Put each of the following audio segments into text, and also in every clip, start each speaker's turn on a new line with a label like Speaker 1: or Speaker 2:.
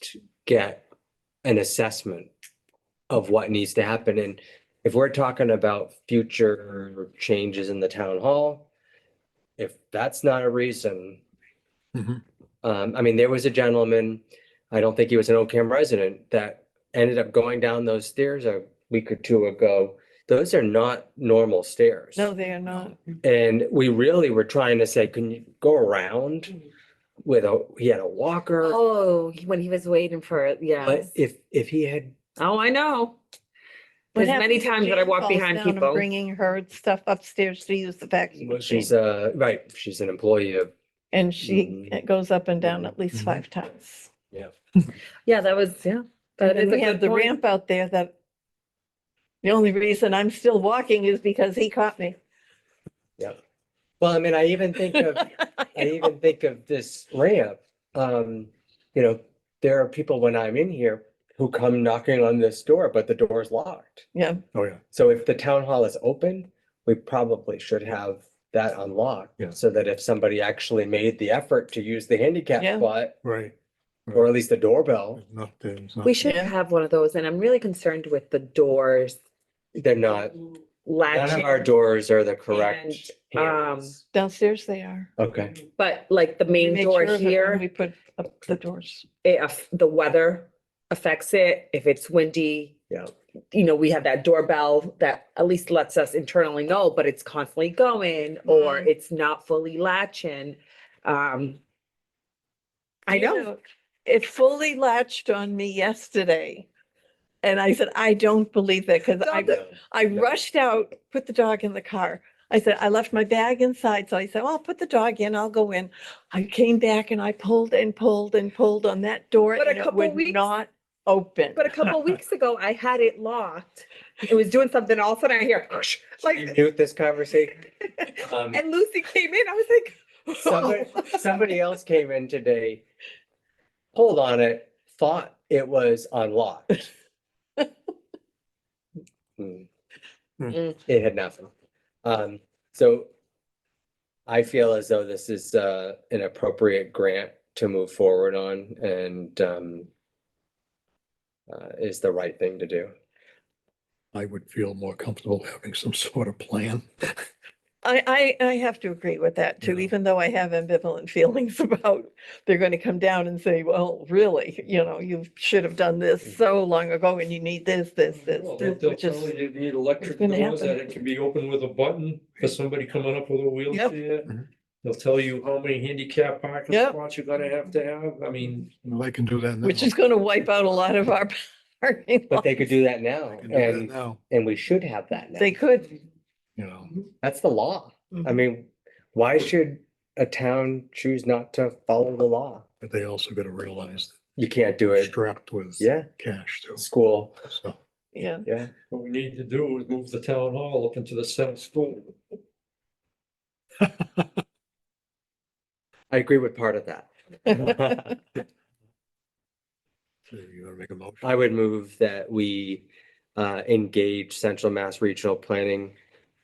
Speaker 1: to get an assessment of what needs to happen. And if we're talking about future changes in the town hall, if that's not a reason.
Speaker 2: Mhm.
Speaker 1: Um, I mean, there was a gentleman, I don't think he was an Ocam resident, that ended up going down those stairs a week or two ago. Those are not normal stairs.
Speaker 3: No, they are not.
Speaker 1: And we really were trying to say, can you go around with a, he had a walker?
Speaker 4: Oh, he- when he was waiting for it,
Speaker 1: But
Speaker 4: yes.
Speaker 1: if, if he had,
Speaker 4: Oh, I know.
Speaker 3: What
Speaker 4: There's many
Speaker 3: happens if
Speaker 4: times that I
Speaker 3: Jane
Speaker 4: walk
Speaker 3: falls
Speaker 4: behind
Speaker 3: down and
Speaker 4: people.
Speaker 3: Bringing her stuff upstairs to use the vacuum machine.
Speaker 1: she's uh right, she's an employee of,
Speaker 3: And she
Speaker 1: Mhm.
Speaker 3: goes up and down at least
Speaker 2: Mhm.
Speaker 3: five times.
Speaker 1: yeah.
Speaker 4: Yeah, that was, yeah.
Speaker 3: And
Speaker 4: That
Speaker 3: then
Speaker 4: is a
Speaker 3: we have
Speaker 4: good
Speaker 3: the
Speaker 4: point.
Speaker 3: ramp out there that the only reason I'm still walking is because he caught me.
Speaker 1: Well, I mean, I even think of, I
Speaker 3: I
Speaker 1: even think of this ramp. Um, you know, there are people when I'm in here who come knocking on this door, but the door is locked.
Speaker 2: Oh, yeah.
Speaker 1: So if the town hall is open, we probably should have that unlocked.
Speaker 2: Yeah.
Speaker 1: So that if somebody actually made the effort to use the handicap
Speaker 3: Yeah.
Speaker 1: spot,
Speaker 2: Right.
Speaker 1: or at least the doorbell,
Speaker 2: There's Not, there's not.
Speaker 4: We should
Speaker 3: Yeah.
Speaker 4: have one of those, and I'm really concerned with the doors
Speaker 1: they're not, none of our
Speaker 4: latching.
Speaker 1: doors are the correct.
Speaker 4: And, um,
Speaker 1: handles.
Speaker 3: Downstairs they are.
Speaker 1: Okay,
Speaker 4: But like the
Speaker 3: We
Speaker 4: main
Speaker 3: make sure
Speaker 4: door
Speaker 3: that when We
Speaker 4: here,
Speaker 3: put up the doors.
Speaker 4: if the weather affects it, if it's windy,
Speaker 1: yeah,
Speaker 4: you know, we have that doorbell that at least lets us internally know, but it's constantly going or
Speaker 3: Mm.
Speaker 4: it's not fully latching. Um, I
Speaker 3: You
Speaker 4: know.
Speaker 3: It fully latched on me yesterday. And I said, I don't believe that because I
Speaker 4: Don't-
Speaker 1: yeah.
Speaker 3: I
Speaker 1: Yeah.
Speaker 3: rushed out, put the dog in the car. I said, I left my bag inside. So I said, well, I'll put the dog in, I'll go in. I came back and I pulled and pulled and pulled on that door
Speaker 4: But a
Speaker 3: and it
Speaker 4: couple
Speaker 3: would
Speaker 4: weeks-
Speaker 3: not open.
Speaker 4: But a couple of weeks ago, I had it locked. It was doing something. All of a sudden, I hear
Speaker 1: You
Speaker 4: like,
Speaker 1: knew this conversation. Um,
Speaker 4: and Lucy came in. I was like,
Speaker 1: Somebody, somebody else came in today, pulled on it, thought it was unlocked. Hmm.
Speaker 4: Mm.
Speaker 1: It had nothing. Um, so I feel as though this is, uh, an appropriate grant to move forward on and, um, uh, is the right thing to do.
Speaker 2: I would feel more comfortable having some sort of plan.
Speaker 3: I, I, I have to agree with that too,
Speaker 2: Yeah.
Speaker 3: even though I have ambivalent feelings about, they're going to come down and say, well, really, you know, you should have done this so long ago and you need this, this, this,
Speaker 5: Mm-hmm. Well,
Speaker 3: this,
Speaker 5: They'll
Speaker 3: which
Speaker 5: tell you
Speaker 3: is,
Speaker 5: you need electric
Speaker 3: gonna
Speaker 5: doors that
Speaker 3: happen.
Speaker 5: it can be opened with a button for somebody coming up with a
Speaker 2: Mhm.
Speaker 5: wheelchair. They'll tell you how many handicap parking
Speaker 3: Yep.
Speaker 5: spots you're gonna have to have. I mean,
Speaker 2: Well, I can do that now.
Speaker 3: which is going to wipe out a lot of our parking
Speaker 1: But they
Speaker 3: lot.
Speaker 1: could do that now
Speaker 2: I can do that
Speaker 1: and,
Speaker 2: now,
Speaker 1: and we should have that now.
Speaker 3: They could.
Speaker 2: you know.
Speaker 1: That's the law. I mean, why should a town choose not to follow the law?
Speaker 2: But they also gotta realize
Speaker 1: You can't do
Speaker 2: they're
Speaker 1: it.
Speaker 2: strapped with
Speaker 1: Yeah,
Speaker 2: cash too,
Speaker 1: school,
Speaker 2: so.
Speaker 3: Yeah.
Speaker 1: yeah.
Speaker 5: what we need to do is move the town hall up into the center school.
Speaker 1: I agree with part of that.
Speaker 2: So You gotta make a motion.
Speaker 1: I would move that we uh engage Central Mass Regional Planning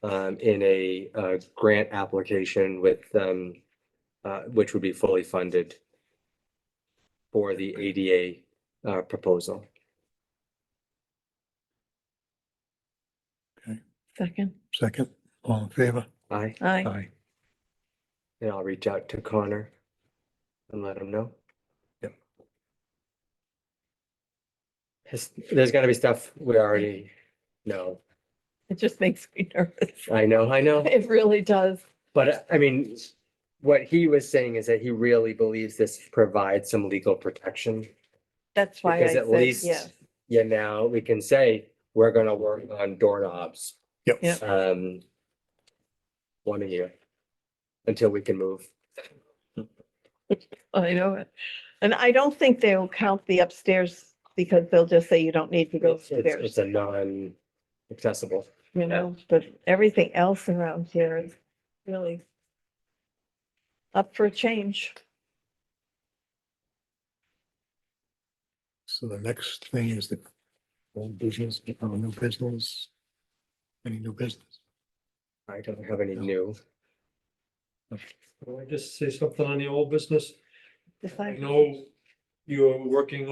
Speaker 1: um in a uh grant application with um uh which would be fully funded for the ADA uh proposal.
Speaker 3: Second,
Speaker 2: Second, all in favor?
Speaker 1: Aye,
Speaker 3: aye.
Speaker 2: Aye.
Speaker 1: and I'll reach out to Connor and let him know.
Speaker 2: Yep.
Speaker 1: Has- There's gotta be stuff we already know.
Speaker 3: It just makes me nervous.
Speaker 1: I know, I know.
Speaker 3: It really does.
Speaker 1: But uh, I mean, what he was saying is that he really believes this provides some legal protection.
Speaker 3: That's why I
Speaker 1: Because at
Speaker 3: said
Speaker 1: least,
Speaker 3: yes.
Speaker 1: yeah, now we can say, we're gonna work on doorknobs.
Speaker 2: Yep.
Speaker 3: Yep.
Speaker 1: Um. One a year. Until we can move.
Speaker 3: I know it. And I don't think they'll count the upstairs because they'll just say you don't need to go
Speaker 1: It's, it's- it's a
Speaker 3: upstairs,
Speaker 1: non-accessible.
Speaker 3: you know, but everything else around here is really up for a change.
Speaker 2: So the next thing is the old business, uh, new business. Any new business?
Speaker 1: I don't have any new.
Speaker 5: Can I just say something on the old business?
Speaker 3: If
Speaker 5: I
Speaker 3: I-
Speaker 5: know you're working